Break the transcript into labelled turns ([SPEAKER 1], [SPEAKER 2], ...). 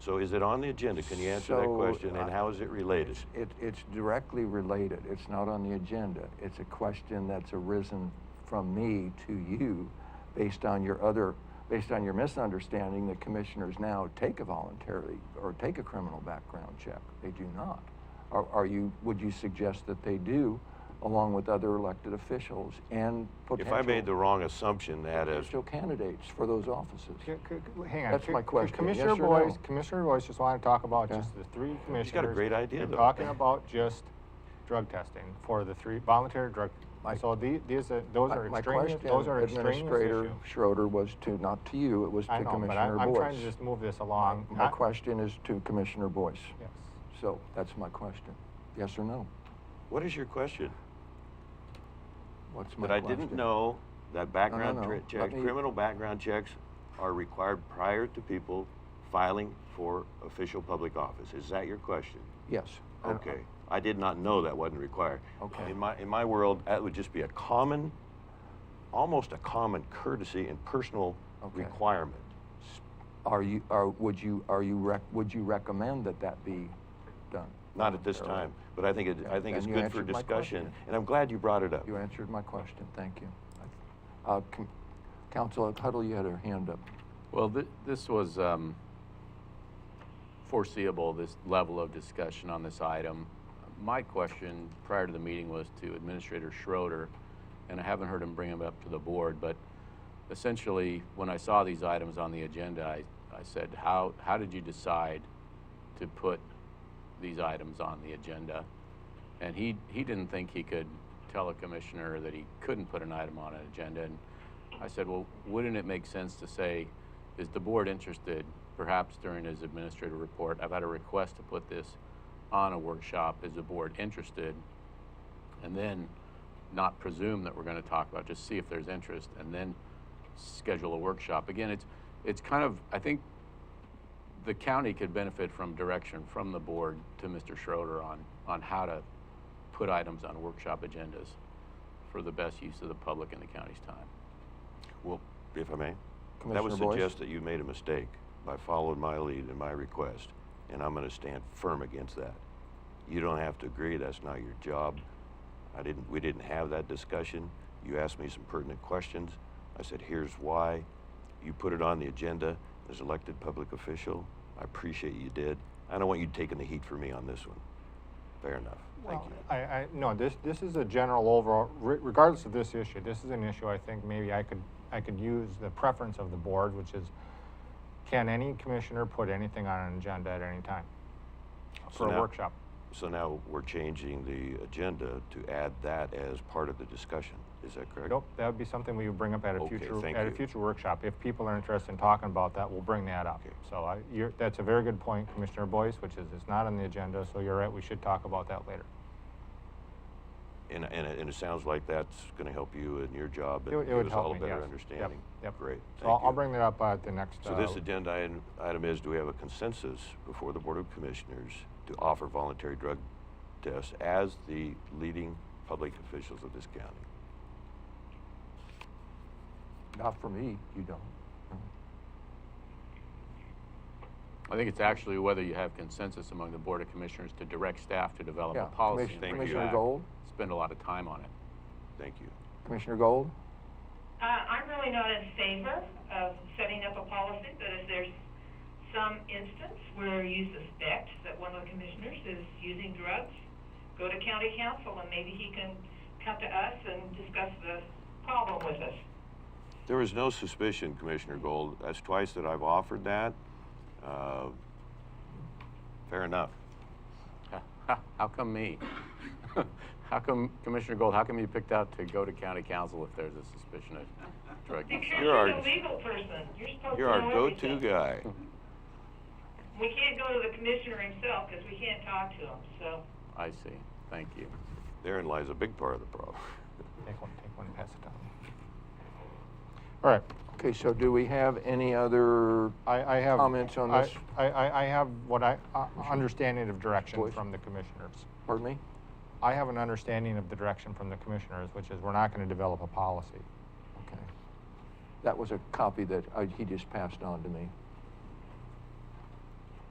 [SPEAKER 1] So is it on the agenda? Can you answer that
[SPEAKER 2] So, uh,
[SPEAKER 1] question? And
[SPEAKER 2] I-
[SPEAKER 1] how is it related?
[SPEAKER 2] It, it's directly related. It's not on the agenda. It's a question that's arisen from me to you based on your other, based on your misunderstanding that commissioners now take a voluntarily or take a criminal background check. They do not. Are, are you, would you suggest that they do along with other elected officials and
[SPEAKER 1] If
[SPEAKER 2] potential?
[SPEAKER 1] I made the wrong assumption, that is,
[SPEAKER 2] Potential candidates for those offices.
[SPEAKER 3] C- c- c- Hang on.
[SPEAKER 2] That's
[SPEAKER 3] C-
[SPEAKER 2] my
[SPEAKER 3] c-
[SPEAKER 2] question.
[SPEAKER 3] Commissioner
[SPEAKER 2] Yes or
[SPEAKER 3] Boyce,
[SPEAKER 2] no?
[SPEAKER 3] Commissioner Boyce just wanted to talk about
[SPEAKER 2] Yeah.
[SPEAKER 3] just the three commissioners.
[SPEAKER 1] great idea,
[SPEAKER 3] You're
[SPEAKER 1] though.
[SPEAKER 3] Talking about just drug testing for the three voluntary drug.
[SPEAKER 2] My-
[SPEAKER 3] So the- these, are- those
[SPEAKER 2] My-
[SPEAKER 3] are
[SPEAKER 2] My
[SPEAKER 3] extraneous,
[SPEAKER 2] question,
[SPEAKER 3] those are extraneous
[SPEAKER 2] Administrator
[SPEAKER 3] issue.
[SPEAKER 2] Schroeder was to, not to you, it was to
[SPEAKER 3] I know,
[SPEAKER 2] Commissioner Boyce.
[SPEAKER 3] but I- I'm trying to just move this along.
[SPEAKER 2] My
[SPEAKER 3] Um, I-
[SPEAKER 2] question is to Commissioner Boyce.
[SPEAKER 3] Yes.
[SPEAKER 2] So that's my question. Yes or no?
[SPEAKER 1] what is your question?
[SPEAKER 2] What's my
[SPEAKER 1] That I
[SPEAKER 2] question?
[SPEAKER 1] didn't know that background
[SPEAKER 2] no.
[SPEAKER 1] tra-
[SPEAKER 2] Let
[SPEAKER 1] check,
[SPEAKER 2] me-
[SPEAKER 1] criminal background checks are required prior to people filing for official public office. Is that your question?
[SPEAKER 2] Yes. I-
[SPEAKER 1] Okay. I did not know that wasn't required.
[SPEAKER 2] Okay.
[SPEAKER 1] In my, in my world, that would just be a common, almost a common courtesy and personal
[SPEAKER 2] Okay.
[SPEAKER 1] requirement.
[SPEAKER 2] Are you, are, would you, are you, rec- would you recommend that that be done?
[SPEAKER 1] Not at this
[SPEAKER 2] voluntarily?
[SPEAKER 1] time, but I think it, I
[SPEAKER 2] Okay,
[SPEAKER 1] think it's
[SPEAKER 2] then you
[SPEAKER 1] good for
[SPEAKER 2] answered my
[SPEAKER 1] discussion,
[SPEAKER 2] question.
[SPEAKER 1] and I'm glad you brought it up.
[SPEAKER 2] You answered my question, thank you. Uh, Com- Councilor Tuttle, you had your hand up.
[SPEAKER 4] Well, th- this was um, foreseeable, this level of discussion on this item. My question prior to the meeting was to Administrator Schroeder, and I haven't heard him bring him up to the board, but essentially, when I saw these items on the agenda, I, I said, how, how did you decide to put these items on the agenda? And he, he didn't think he could tell a commissioner that he couldn't put an item on an agenda. And I said, well, wouldn't it make sense to say, is the board interested, perhaps during his administrative report, I've had a request to put this on a workshop, is the board interested? And then not presume that we're gonna talk about, just see if there's interest, and then schedule a workshop. Again, it's, it's kind of, I think the county could benefit from direction from the board to Mr. Schroeder on, on how to put items on workshop agendas for the best use of the public and the county's time.
[SPEAKER 1] Well, if I may, that would
[SPEAKER 2] Commissioner Boyce?
[SPEAKER 1] suggest that you made a mistake by following my lead and my request, and I'm gonna stand firm against that. You don't have to agree, that's not your job. I didn't, we didn't have that discussion. You asked me some pertinent questions. I said, here's why. You put it on the agenda as elected public official. I appreciate you did. I don't want you taking the heat for me on this one. Fair enough. Thank
[SPEAKER 3] Well,
[SPEAKER 1] you.
[SPEAKER 3] I, I, no, this, this is a general overall, re- regardless of this issue, this is an issue I think maybe I could, I could use the preference of the board, which is, can any commissioner put anything on an agenda at any time?
[SPEAKER 1] So
[SPEAKER 3] For a
[SPEAKER 1] now-
[SPEAKER 3] workshop.
[SPEAKER 1] So now we're changing the agenda to add that as part of the discussion. Is that correct?
[SPEAKER 3] Nope, that would be something we would bring up at a
[SPEAKER 1] Okay,
[SPEAKER 3] future,
[SPEAKER 1] thank
[SPEAKER 3] at a
[SPEAKER 1] you.
[SPEAKER 3] future workshop. If people are interested in talking about that, we'll bring that up.
[SPEAKER 1] Okay.
[SPEAKER 3] So I, you're, that's a very good point, Commissioner Boyce, which is it's not on the agenda, so you're right, we should talk about that later.
[SPEAKER 1] And, and, it, and it sounds like that's going to help you in your job
[SPEAKER 3] It
[SPEAKER 1] and
[SPEAKER 3] would- it
[SPEAKER 1] give
[SPEAKER 3] would
[SPEAKER 1] us
[SPEAKER 3] help
[SPEAKER 1] all a
[SPEAKER 3] me,
[SPEAKER 1] better
[SPEAKER 3] yes. Yep,
[SPEAKER 1] understanding.
[SPEAKER 3] yep.
[SPEAKER 1] Great.
[SPEAKER 3] So I'll,
[SPEAKER 1] thank
[SPEAKER 3] I'll
[SPEAKER 1] you.
[SPEAKER 3] bring that up uh, at the next.
[SPEAKER 1] So
[SPEAKER 3] uh,
[SPEAKER 1] this agenda item- item is, do we have a consensus before the Board of Commissioners to offer voluntary drug tests as the leading public officials of this county?
[SPEAKER 2] Not for me, you don't. No.
[SPEAKER 4] I think it's actually whether you have consensus among the Board of Commissioners to direct staff to develop
[SPEAKER 2] Yeah,
[SPEAKER 4] a policy.
[SPEAKER 2] Commissioner-
[SPEAKER 4] and bring it
[SPEAKER 1] Commissioner
[SPEAKER 4] back.
[SPEAKER 2] Gold?
[SPEAKER 4] Spend a lot of time on it.
[SPEAKER 1] Thank you.
[SPEAKER 2] Commissioner Gold?
[SPEAKER 5] Uh, I'm really not in favor of setting up a policy, but if there's some instance where you suspect that one of the commissioners is using drugs, go to county council and maybe he can come to us and discuss the problem with us.
[SPEAKER 1] There is no suspicion, Commissioner Gold. That's twice that I've offered that. Uh, fair enough.
[SPEAKER 4] Ha- ha, How come me? How come, Commissioner Gold, how come you picked out to go to county council if there's a suspicion of drug use?
[SPEAKER 5] Because
[SPEAKER 1] You're our-
[SPEAKER 5] you're the legal person, you're supposed to
[SPEAKER 1] You're
[SPEAKER 5] know
[SPEAKER 1] our go-to
[SPEAKER 5] everything.
[SPEAKER 1] guy.
[SPEAKER 5] We can't go to the commissioner himself because we can't talk to him, so.
[SPEAKER 4] I see. Thank you.
[SPEAKER 1] Therein lies a big part of the problem.
[SPEAKER 3] Take one, take one, and pass it down. All right,
[SPEAKER 2] Okay, so do we have any other? uh,
[SPEAKER 3] I, I have.
[SPEAKER 2] Comments on
[SPEAKER 3] I-
[SPEAKER 2] this?
[SPEAKER 3] I, I, I have what I, uh, understanding of direction
[SPEAKER 2] Boyce?
[SPEAKER 3] from the commissioners.
[SPEAKER 2] Pardon me?
[SPEAKER 3] I have an understanding of the direction from the commissioners, which is we're not going to develop a policy.
[SPEAKER 2] Okay. That was a copy that I, he uh, just passed on to me.